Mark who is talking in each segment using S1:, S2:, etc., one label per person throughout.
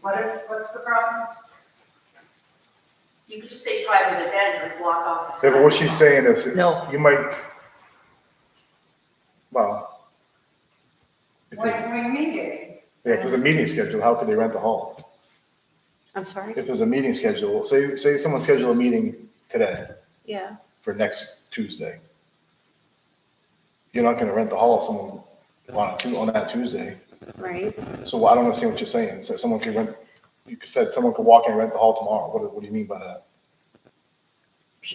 S1: What is, what's the problem?
S2: You could just say private event and block off. the
S3: Yeah, but what she's saying is,
S4: No.
S3: you might, well, if
S1: What,
S3: there's,
S1: what do you mean, Gary?
S3: yeah, if there's a meeting scheduled, how could they rent the hall?
S4: I'm sorry?
S3: If there's a meeting scheduled, say, say someone scheduled a meeting today
S4: Yeah.
S3: for next Tuesday. You're not gonna rent the hall if someone, on, a Tu- on that Tuesday.
S4: Right?
S3: So I don't understand what you're saying. So someone could rent, you said someone could walk in and rent the hall tomorrow. What, do- what do you mean by that?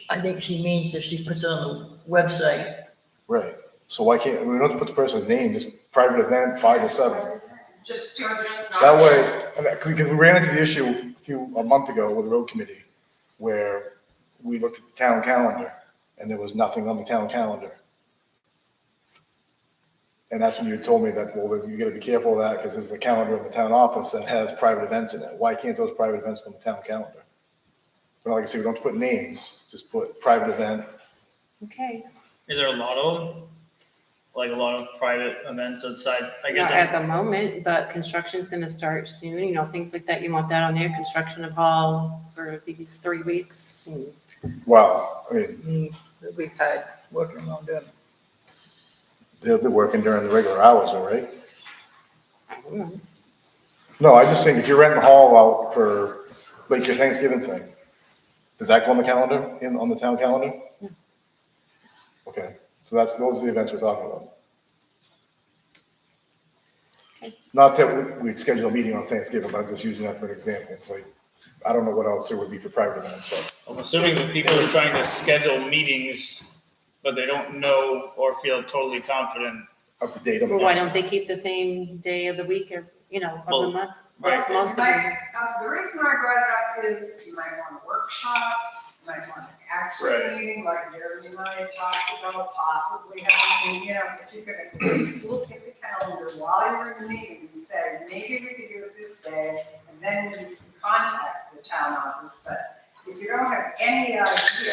S5: I think she means if she puts it on the website,
S3: Right. So why can't, we don't have to put the person's name, just private event, five to seven.
S1: Just
S2: You're
S1: to,
S2: just not.
S3: That way, and that- we, we ran into the issue a few, a month ago with the road committee, where we looked at the town calendar, and there was nothing on the town calendar. And that's when you told me that, well, then you gotta be careful of that, because there's the calendar in the town office that has private events in it, why can't those private events be on the town calendar? But like I said, we don't put names, just put private event,
S4: Okay.
S6: Is there a lot of them? Like a lot of private events outside, I guess.
S4: Not
S6: I'm-
S4: at the moment, but construction's gonna start soon, you know, things like that. You want that on there, construction of hall for these three weeks. and-
S3: well, I mean,
S5: mm, we've had working on them.
S3: they'll be working during the regular hours, all right?
S4: I don't know.
S3: No, I just think if you're renting the hall out for, like your Thanksgiving thing, does that go on the calendar, in, on the town calendar?
S4: No.
S3: Okay, so that's, those are the events we're talking about.
S4: Okay.
S3: Not that we, we schedule a meeting on Thanksgiving, but I'm just using that for an example, like, I don't know what else there would be for private events, but,
S6: I'm assuming that people are trying to schedule meetings, but they don't know or feel totally confident.
S3: up to date. on the-
S4: Well, why don't they keep the same day of the week or, you know, of the
S6: Well,
S4: month?
S6: right.
S4: Most of them.
S1: my, uh, the reason I brought it up is you might want a workshop, you might want an action
S6: Right.
S1: meeting, like Jeremy and I talked about possibly having, you know, if you're gonna at least look at the calendar while you're in the meeting and say, maybe we could do it this day, and then you can contact the town office, but if you don't have any idea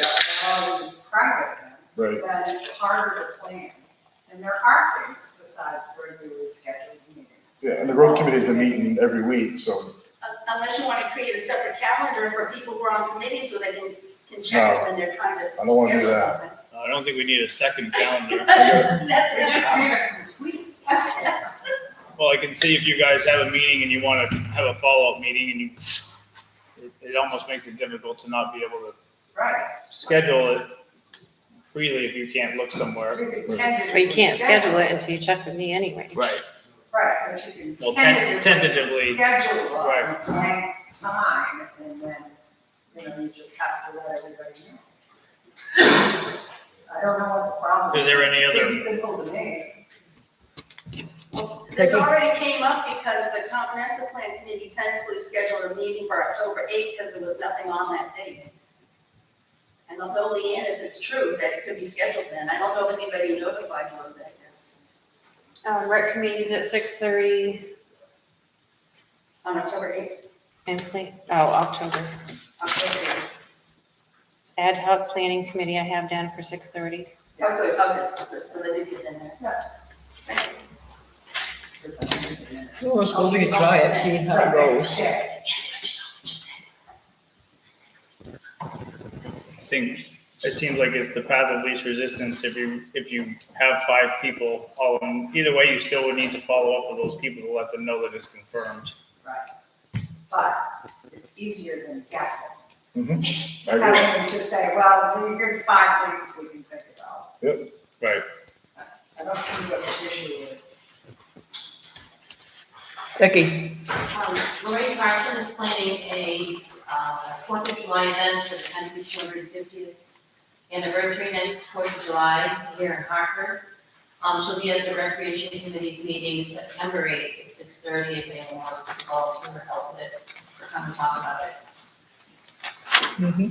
S1: about all these private events, then it's harder to plan. And there are things besides regularly scheduled meetings.
S3: Yeah, and the road committee's been meeting every week, so,
S2: Un- Uh, Unless you want to create a separate calendar for people who are on committees so they can, can check it when they're trying to.
S3: I don't wanna do
S2: schedule
S3: that.
S2: something.
S6: I don't think we need a second calendar.
S2: That's, that's
S1: They
S2: the
S1: just need
S2: problem.
S1: a complete
S2: Yes.
S6: Well, I can see if you guys have a meeting and you want to have a follow-up meeting and you, it, it almost makes it difficult to not be able to
S1: Right.
S6: schedule it freely if you can't look somewhere.
S1: But
S4: But you can't schedule it until you check with me anyway.
S6: Right.
S1: Right, but you
S6: Well,
S1: can
S6: ten-
S1: tentatively
S6: tentatively.
S1: schedule on a
S6: Right.
S1: blank time, and then, you know, you just have to let everybody know. I don't know what the problem is.
S6: Is there any
S1: It
S6: other-
S1: Seems simple to me.
S2: Well, This already came up because the comprehensive plan committee tentatively scheduled a meeting for October eighth because there was nothing on that date. And they'll fill me in if it's true that it could be scheduled then. I don't know if anybody notified you of that yet.
S4: Um, rec committees at six thirty
S2: On October eighth,
S4: and plan, oh, October.
S2: October eighth.
S4: Ad hoc planning committee I have down for six thirty.
S2: Oh, good, oh, good, good, so they did get in there.
S1: It's not even a minute.
S5: Well, let's go we can try it, see how it goes.
S1: Yeah.
S2: Yes, but you know what you said.
S6: I think it seems like it's the path of least resistance if you, if you have five people all in, either way, you still would need to follow up with those people to let them know that it's confirmed.
S1: But it's easier than guessing.
S3: mhm, I
S1: Rather
S3: agree.
S1: than just say, well, here's five things we can think about.
S6: Right.
S1: I don't see what the issue is.
S5: Becky,
S7: Um, Lorraine Carson is planning a, uh, Fourth of July event for the country's two hundred and fiftieth anniversary next Fourth of July here in Hartford. Um, she'll be at the Recreation Committee's meeting September eighth at six thirty if anyone wants to volunteer or help with it, or come and talk about it.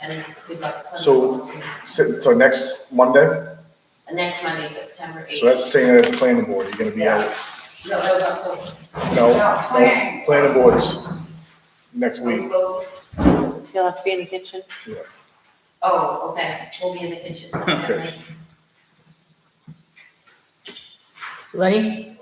S7: And we'd like. to-
S3: So- So, so next Monday,
S7: And Uh, next Monday, September eighth.
S3: so that's saying that it's a planning board, you're gonna be out.
S7: No, that was October.
S3: No,
S1: No, planning.
S3: no, planning boards next
S7: Are we
S3: week.
S7: both-
S4: You'll have to be in the kitchen.
S7: Oh, okay, we'll be in the kitchen.
S3: Okay.
S5: Lenny,
S1: uh,